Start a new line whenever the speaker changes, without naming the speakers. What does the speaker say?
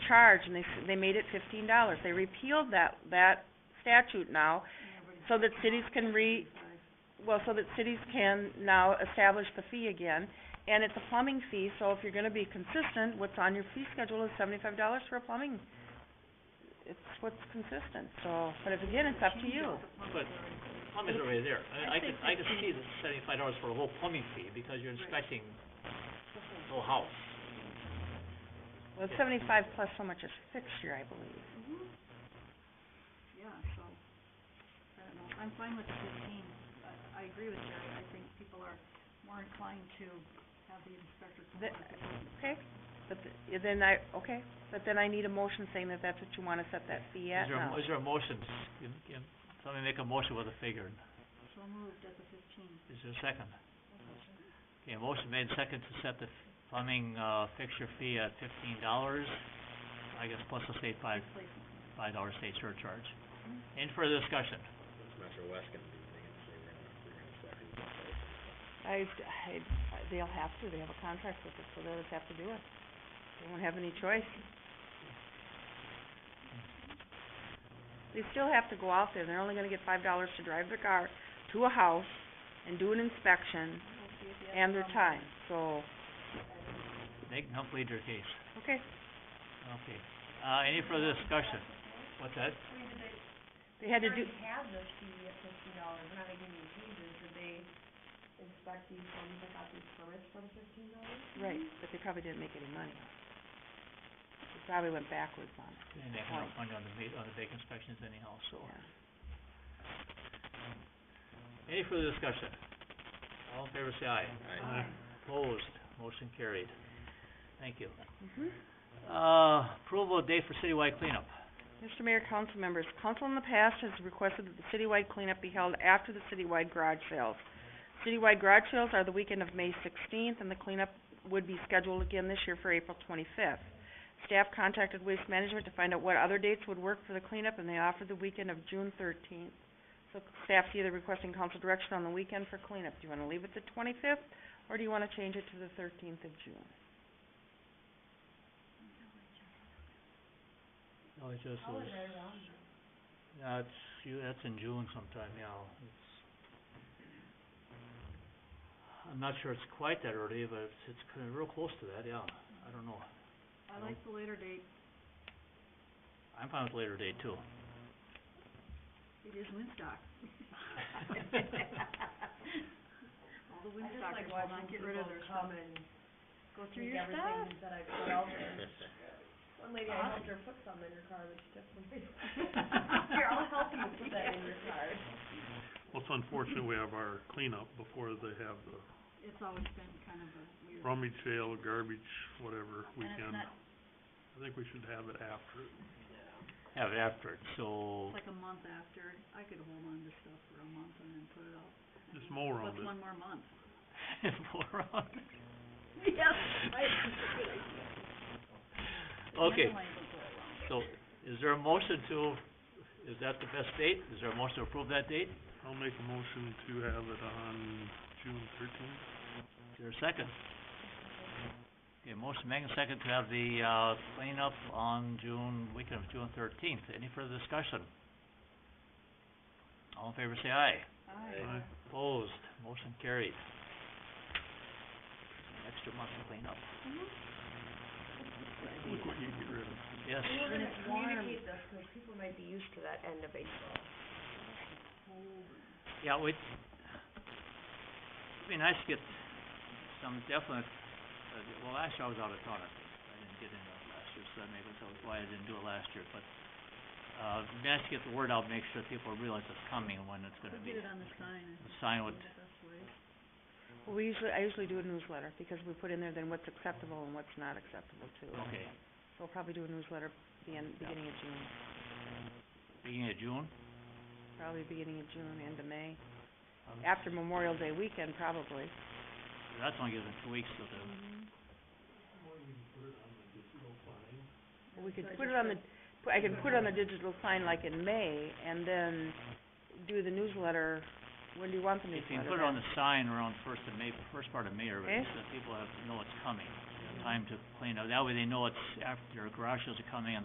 charge, and they, s- they made it fifteen dollars. They repealed that, that statute now, so that cities can re, well, so that cities can now establish the fee again. And it's a plumbing fee, so if you're gonna be consistent, what's on your fee schedule is seventy-five dollars for a plumbing. It's what's consistent, so, but if, again, it's up to you.
But plumbing's already there. I, I could, I could see the seventy-five dollars for a whole plumbing fee, because you're inspecting the whole house.
Well, it's seventy-five plus so much is fixture, I believe.
Yeah, so, I don't know, I'm fine with the fifteen, I, I agree with Jerry, I think people are more inclined to have the inspector come
The-
on. if
Okay, but th- then I, okay, but then I need a motion saying that that's what you wanna set that fee
Is
at
there, a-
now.
is there a motion? Can, can somebody make a motion with a figure?
it's So moved at the fifteen.
Is there a second? Okay, a motion made second to set the plumbing, uh, fixture fee at fifteen dollars, I guess plus the state five, five dollar state surcharge. Any further discussion?
I, I, they'll have to, they have a contract with us, so they'll just have to do it. They won't have any choice. They still have to go out there, they're only gonna get five dollars to drive their car to a house and do an inspection and their time, so,
They can help lead their case.
okay.
Okay. Uh, any further discussion? What's that?
They had to do,
have the fee at fifty dollars, now they give you changes, did they inspect these homes and got these permits for the fifteen dollars?
right, but they probably didn't make any money. They probably went backwards on it,
They make enough money on the va- on the big inspections anyhow, so.
yeah.
Any further discussion? All in favor, say aye.
Aye.
Opposed, motion carried. Thank you.
Mhm.
Uh, approval of date for citywide cleanup.
Mr. Mayor, council members, council in the past has requested that the citywide cleanup be held after the citywide garage sales. Citywide garage sales are the weekend of May sixteenth, and the cleanup would be scheduled again this year for April twenty-fifth. Staff contacted Waste Management to find out what other dates would work for the cleanup, and they offered the weekend of June thirteenth. So staff's either requesting council direction on the weekend for cleanup. Do you wanna leave it the twenty-fifth, or do you wanna change it to the thirteenth of June?
No, it Oh, just
Oh,
was. Yeah, it's, you, that's in June sometime, yeah, it's. I'm not sure it's quite that early, but it's, it's kinda real close to that, yeah, I don't know.
I like the later date,
I'm fine with later date too.
it is Woodstock. All the
I just like
Woodstockers will
watching
not get rid
people
of their stuff.
come and
Go through
take
your stuff.
everything that I put out there. One lady, I helped her put some in her car, but she took some. Here, I'll help you put that in your car.
Well, it's unfortunate we have our cleanup before they have the
It's always been kind of a weird.
rummage sale, garbage, whatever
And it's
weekend.
not,
I think we should have it after.
Have it after, it, so,
it's like a month after, I could hold on to stuff for a month and then put it out.
Just mow around
What's
it.
one more month?
moron.
Yes,
Okay, so, is there a motion to, is that the best date? Is there a motion to approve that date?
I'll make a motion to have it on June thirteenth.
Is there a second? Okay, motion made and second to have the, uh, cleanup on June, weekend of June thirteenth. Any further discussion? All in favor, say aye.
Aye.
Opposed, motion carried. An Extra month to clean up.
Look what you can get rid of.
Yes,
We were
When
gonna
it's warm.
communicate this, 'cause people might be used to that end of April.
yeah, we, it'd be nice to get some definite, uh, well, last year I was out of town, I think. I didn't get into it last year, so that maybe that was why I didn't do it last year, but, uh, it'd be nice to get the word out, make sure people realize it's coming and when it's
Put
gonna be.
it on the sign,
The
I think
sign
that's
would,
the best way.
Well, we usually, I usually do a newsletter, because we put in there then what's acceptable and what's not acceptable too.
okay,
So we'll probably do a newsletter the end, beginning of June,
beginning of June,
probably beginning of June, end of May,
Um,
after Memorial Day weekend probably.
that's only given two weeks to the,
But We could put it on the, pu- I could put it on the digital sign like in May and then do the newsletter, when do you want the
If
newsletter?
Mm-hmm. Eh?
you can put it on the sign around first of May, first part of May, or
Okay.
so people have, know it's coming. and
Mm-hmm.
time to clean up. That way they know it's after, garage sales are coming and